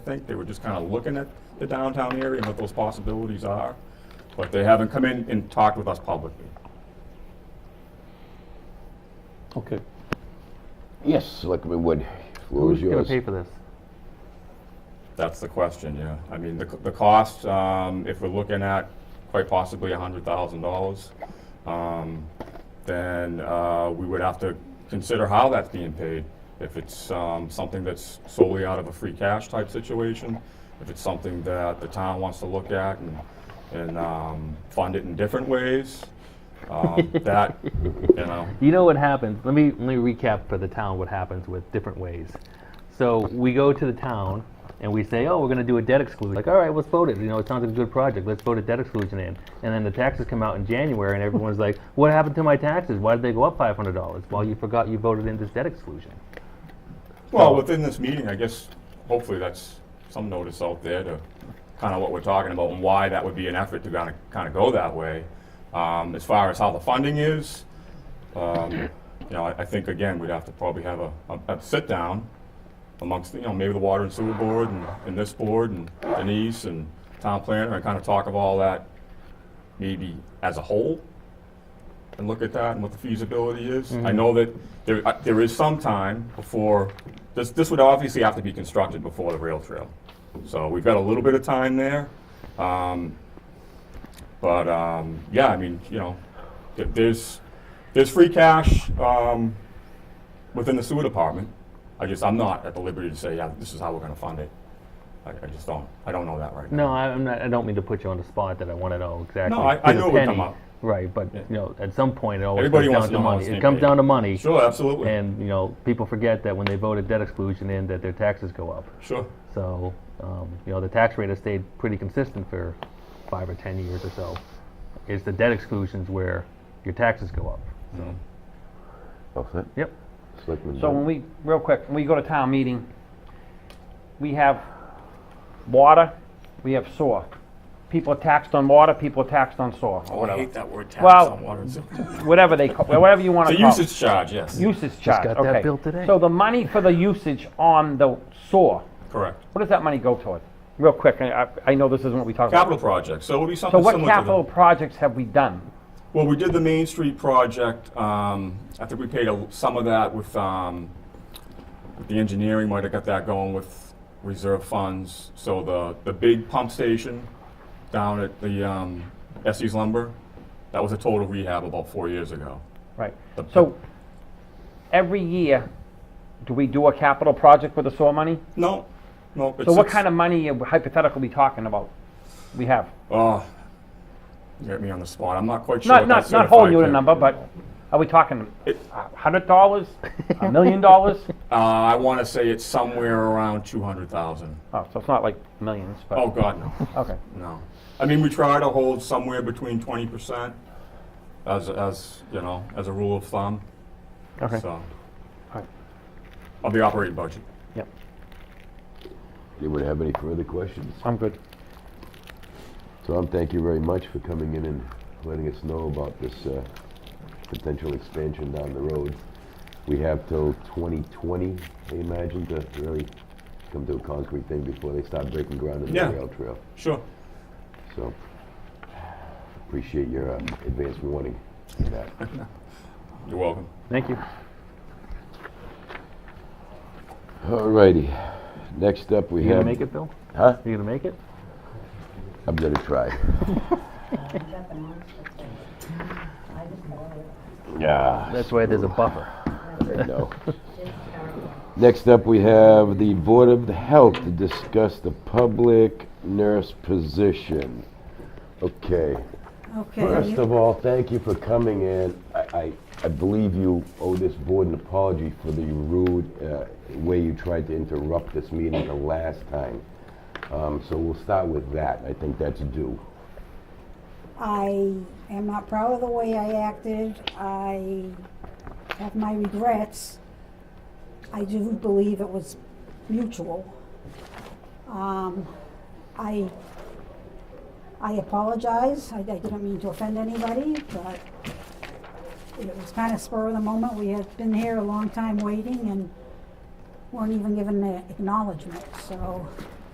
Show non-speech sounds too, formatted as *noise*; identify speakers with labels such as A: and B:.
A: think. They were just kind of looking at the downtown area and what those possibilities are. But they haven't come in and talked with us publicly.
B: Okay.
C: Yes, Selectman Wood, floor is
D: Who's going
C: yours.
D: to pay for this?
A: That's the question, yeah. I mean, the, c- the cost, um, if we're looking at quite possibly a hundred thousand dollars, um, then, uh, we would have to consider how that's being paid. If it's, um, something that's solely out of a free cash type situation, if it's something that the town wants to look at and, and, um, fund it in different ways, um, that, you know,
D: You know what happens? Let me let me recap for the town what happens with different ways. So we go to the town and we say, oh, we're going to do a debt exclusion. Like, all right, let's vote it. You know, it sounds like a good project. Let's vote a debt exclusion in. And then the taxes come out in January, and everyone's like, what happened to my taxes? Why did they go up five hundred dollars? Well, you forgot you voted in this debt exclusion.
A: Well, within this meeting, I guess, hopefully that's some notice out there to kind of what we're talking about and why that would be an effort to kind of, kind of go that way. Um, as far as how the funding is, um, you know, I, I think again, we'd have to probably have a, a, a sit-down amongst, you know, maybe the Water and Sewer Board and, and this board and Denise and town planner and kind of talk of all that maybe as a whole and look at that and what the feasibility is. I know that there, uh, there is some time before, this, this would obviously have to be constructed before the rail trail. So we've got a little bit of time there. Um, But, um, yeah, I mean, you know, th- there's, there's free cash um, within the sewer department. I just, I'm not at the liberty to say, yeah, this is how we're gonna fund it. I, I just don't, I don't know that right now.
D: No, I, I'm not. I don't mean to put you on the spot. That I want to know exactly.
A: I-
D: to
A: I
D: the
A: knew it would come
D: penny.
A: up.
D: Right, but you know, at some point, it always
A: Everybody wants to
D: comes down to
A: know how
D: money.
A: it's
D: It
A: being
D: comes
A: paid.
D: down to money.
A: Sure, absolutely,
D: And, you know, people forget that when they voted debt exclusion in, that their taxes go up.
A: sure.
D: So, um, you know, the tax rate has stayed pretty consistent for five or 10 years or so. It's the debt exclusions where your taxes go up.
C: All set?
D: Yep.
C: Selectman
E: So when
C: Wood.
E: we, real quick, when we go to town meeting, we have water, we have sewer. People are taxed on water, people are taxed on sewer, or
A: I
E: whatever,
A: hate that word tax
E: Well-
A: on water and sewer.
E: whatever they, ca- whatever you want
A: The
E: to call it.
A: usage charge, yes.
E: Usage charge, okay.
D: got that bill today.
E: So the money for the usage on the sewer,
A: Correct.
E: what does that money go toward? Real quick, I, I- I know this isn't what we talked
A: Capital
E: about.
A: projects, so it'll be
E: So
A: something
E: what
A: similar to
E: capital
A: the...
E: projects have we done?
A: Well, we did the Main Street project, um, I think we paid a- some of that with, um, with the engineering, might have got that going with reserve funds. So the, the big pump station down at the, um, Essie's Lumber, that was a total rehab about four years ago.
E: Right,
A: The-
E: so every year, do we do a capital project with the sewer money?
A: No, no.
E: So what kind of money are we hypothetically talking about we have?
A: Oh, you got me on the spot, I'm not quite sure
E: Not,
A: what that
E: not, not whole
A: certified
E: unit
A: pay-
E: number, but are we talking
A: It-
E: a hundred dollars, a
A: *laughs*
E: million dollars?
A: Uh, I wanna say it's somewhere around two hundred thousand.
E: Oh, so it's not like millions,
A: Oh,
E: but,
A: God, no.
E: okay.
A: No. I mean, we try to hold somewhere between twenty percent as, as, you know, as a rule of thumb.
E: Okay.
A: So,
E: Alright.
A: of the operating budget.
E: Yep,
C: Anyone have any further questions?
E: I'm good.
C: Tom, thank you very much for coming in and letting us know about this uh, potential expansion down the road. We have till 2020, I imagine, to really come to a concrete thing before they start breaking ground in the
A: Yeah.
C: rail trail.
A: Sure.
C: So, appreciate your uh, advance warning for that.
A: You're welcome.
D: Thank you.
C: Alrighty, next up we
D: You going
C: have...
D: to make it, Bill?
C: Huh?
D: You going to make it?
C: I'm gonna try. Yeah.
D: That's why there's a buffer.
C: No. Next up, we have the Board of Health to discuss the public nurse position. Okay. First
F: Okay,
C: of all, thank you for coming in. I, I, I believe you owe this board an apology for the rude uh, way you tried to interrupt this meeting the last time. Um, so we'll start with that. I think that's due.
F: I am not proud of the way I acted. I have my regrets. I do believe it was mutual. Um, I, I apologize. I, I didn't mean to offend anybody, but it was kind of spur of the moment. We had been here a long time waiting and weren't even given the acknowledgement, so